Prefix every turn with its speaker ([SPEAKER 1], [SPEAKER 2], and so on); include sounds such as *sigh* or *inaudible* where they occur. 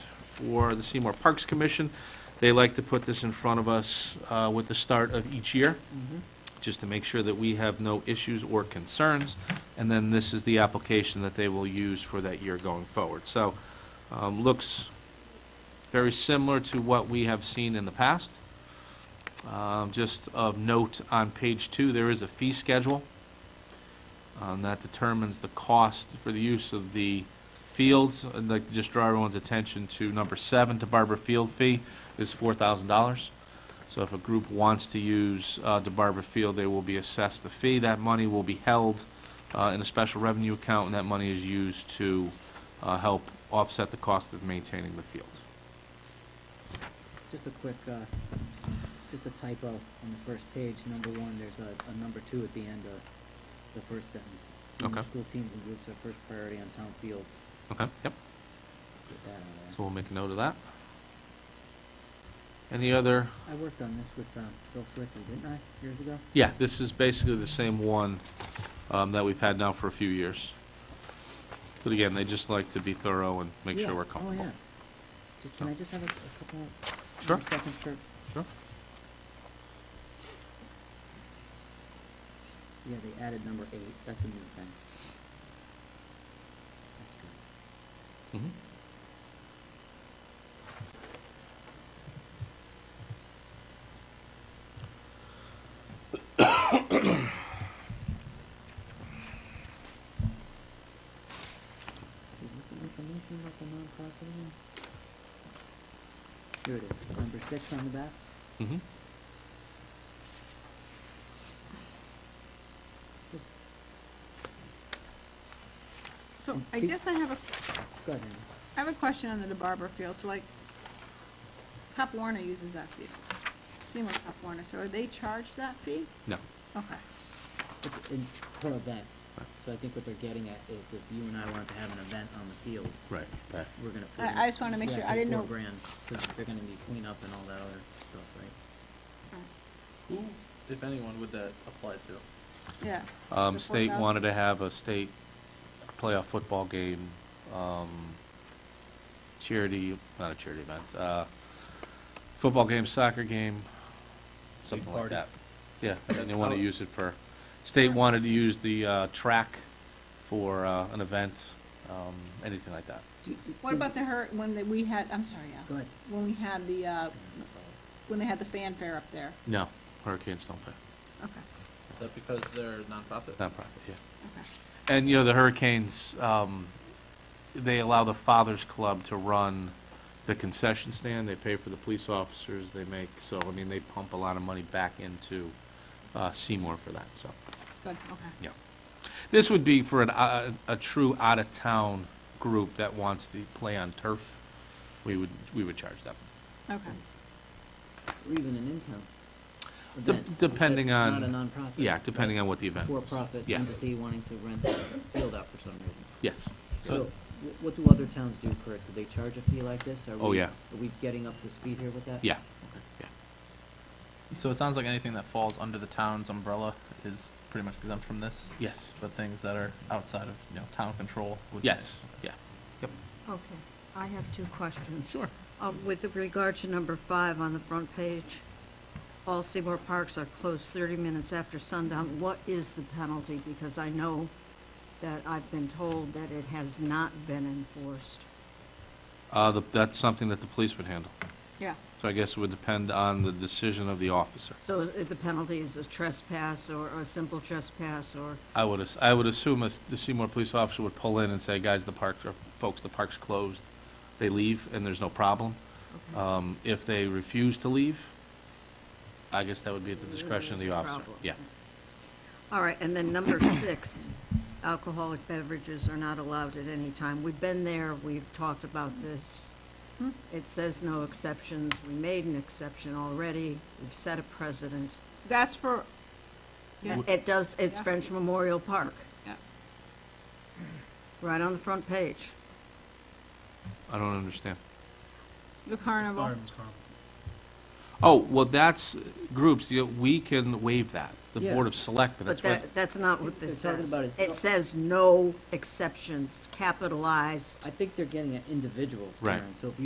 [SPEAKER 1] for the Seymour Parks Commission. They like to put this in front of us uh, with the start of each year,
[SPEAKER 2] Mm-hmm.
[SPEAKER 1] just to make sure that we have no issues or concerns. And then this is the application that they will use for that year going forward. So um, looks very similar to what we have seen in the past. Um, Just of note, on page two, there is a fee schedule. Um, That determines the cost for the use of the fields. I'd like to just draw everyone's attention to number seven, to Barber Field fee is $4,000. So if a group wants to use uh, the Barber Field, they will be assessed a fee. That money will be held uh, in a special revenue account, and that money is used to uh, help offset the cost of maintaining the field.
[SPEAKER 2] Just a quick, uh, just a typo on the first page, number one, there's a, a number two at the end of the first sentence. Senior
[SPEAKER 1] Okay.
[SPEAKER 2] School teams and groups are first priority on town fields.
[SPEAKER 1] Okay, yep.
[SPEAKER 2] Get that out of there.
[SPEAKER 1] So we'll make a note of that. Any other,
[SPEAKER 2] I worked on this with, um, Bill Swickley, didn't I, years ago?
[SPEAKER 1] yeah, this is basically the same one um, that we've had now for a few years. But again, they just like to be thorough and make
[SPEAKER 2] Yeah.
[SPEAKER 1] sure we're
[SPEAKER 2] Oh,
[SPEAKER 1] comfortable.
[SPEAKER 2] yeah. Just, can
[SPEAKER 1] So-
[SPEAKER 2] I just have a, a couple more
[SPEAKER 1] Sure.
[SPEAKER 2] seconds for?
[SPEAKER 1] Sure.
[SPEAKER 2] Yeah, they added number eight, that's a new thing. That's good.
[SPEAKER 1] Mhm.
[SPEAKER 2] Is this the information about the nonprofit again? Here it is, number six on the back.
[SPEAKER 1] Mhm.
[SPEAKER 3] So
[SPEAKER 2] Mm,
[SPEAKER 3] I
[SPEAKER 2] pe-
[SPEAKER 3] guess I have a,
[SPEAKER 2] Go ahead, Andy.
[SPEAKER 3] I have a question on the DeBarber field, so like, Pop Warner uses that field, Seymour Pop Warner, so are they charged that fee?
[SPEAKER 1] No,
[SPEAKER 3] Okay,
[SPEAKER 2] It's, it's per event, so I think what they're getting at is if you and I wanted to have an event on the field,
[SPEAKER 1] right, right.
[SPEAKER 2] we're gonna.
[SPEAKER 3] I- I just wanna make sure- I didn't know-
[SPEAKER 2] Four grand, 'cause they're gonna need cleanup and all that other stuff, right?
[SPEAKER 4] Who, if anyone, would that apply to?
[SPEAKER 3] yeah.
[SPEAKER 1] Um,
[SPEAKER 3] The
[SPEAKER 1] state
[SPEAKER 3] 4,000?
[SPEAKER 1] wanted to have a state playoff football game, um, charity, not a charity event, uh, football game, soccer game, something like
[SPEAKER 4] party.
[SPEAKER 1] that. Yeah, and they
[SPEAKER 4] That's
[SPEAKER 1] want to
[SPEAKER 4] how-
[SPEAKER 1] use it for, state wanted to use the, uh, track for, uh, an event, um, anything like that.
[SPEAKER 3] What about the hurt, when the- we had, I'm sorry,
[SPEAKER 2] Go
[SPEAKER 3] yeah,
[SPEAKER 2] ahead.
[SPEAKER 3] when we had the, uh, when they had the fanfare up there?
[SPEAKER 1] No, hurricanes don't pay,
[SPEAKER 3] Okay,
[SPEAKER 4] Is that because they're nonprofit?
[SPEAKER 1] nonprofit, yeah.
[SPEAKER 3] okay,
[SPEAKER 1] And, you know, the Hurricanes, um, they allow the Fathers Club to run the concession stand. They pay for the police officers they make. So, I mean, they pump a lot of money back into uh, Seymour for that, so.
[SPEAKER 3] good, okay.
[SPEAKER 1] Yeah. This would be for an, uh, a true out-of-town group that wants to play on turf. We would, we would charge them.
[SPEAKER 3] Okay,
[SPEAKER 2] Or even an in-town
[SPEAKER 1] De-
[SPEAKER 2] event. if
[SPEAKER 1] depending
[SPEAKER 2] that's
[SPEAKER 1] on-
[SPEAKER 2] Not a nonprofit.
[SPEAKER 1] Yeah, depending on what the event was.
[SPEAKER 2] For-profit
[SPEAKER 1] Yeah.
[SPEAKER 2] entity wanting to rent the field out for some reason.
[SPEAKER 1] Yes.
[SPEAKER 2] So,
[SPEAKER 4] So-
[SPEAKER 2] wh- what do other towns do, Kurt? Do they charge a fee like this? Are
[SPEAKER 1] Oh,
[SPEAKER 2] we-
[SPEAKER 1] yeah.
[SPEAKER 2] Are we getting up to speed here with that?
[SPEAKER 1] Yeah, yeah.
[SPEAKER 4] So it sounds like anything that falls under the town's umbrella is pretty much exempt from this,
[SPEAKER 1] Yes,
[SPEAKER 4] but things that are outside of, you know, town control would.
[SPEAKER 1] yes, yeah.
[SPEAKER 5] Okay, I have two questions.
[SPEAKER 1] Sure.
[SPEAKER 5] Uh, With regard to number five on the front page, all Seymour parks are closed 30 minutes after sundown. What is the penalty? Because I know that I've been told that it has not been enforced.
[SPEAKER 1] Uh, the- that's something that the police would handle.
[SPEAKER 3] yeah,
[SPEAKER 1] So I guess it would depend on the decision of the officer.
[SPEAKER 5] So i- the penalty is a trespass or a simple trespass or,
[SPEAKER 1] I would, as- I would assume as the Seymour police officer would pull in and say, guys, the park, or folks, the park's closed. They leave and there's no problem. Um, if they refuse to leave, I guess that would be at the discretion of the
[SPEAKER 5] There's a
[SPEAKER 1] officer.
[SPEAKER 5] problem.
[SPEAKER 1] Yeah.
[SPEAKER 5] all right, and then
[SPEAKER 1] *coughs*
[SPEAKER 5] number six, alcoholic beverages are not allowed at any time. We've been there, we've talked about this.
[SPEAKER 3] Hmm.
[SPEAKER 5] It says no exceptions. We made an exception already. We've set a precedent.
[SPEAKER 3] that's for, yeah,
[SPEAKER 5] And It does, it's
[SPEAKER 3] Yeah.
[SPEAKER 5] French Memorial Park,
[SPEAKER 3] yeah.
[SPEAKER 5] right on the front page.
[SPEAKER 1] I don't understand.
[SPEAKER 3] the carnival,
[SPEAKER 1] Oh, well, that's uh, groups, you know, we can waive that. The
[SPEAKER 2] Yeah.
[SPEAKER 1] Board of Selectmen,
[SPEAKER 5] But
[SPEAKER 1] that's what,
[SPEAKER 5] that, that's not what
[SPEAKER 2] They're
[SPEAKER 5] this
[SPEAKER 2] talking
[SPEAKER 5] says.
[SPEAKER 2] about is no-
[SPEAKER 5] It says no exceptions, capitalized.
[SPEAKER 2] I think they're getting at individuals,
[SPEAKER 1] Right.
[SPEAKER 2] Karen, so if you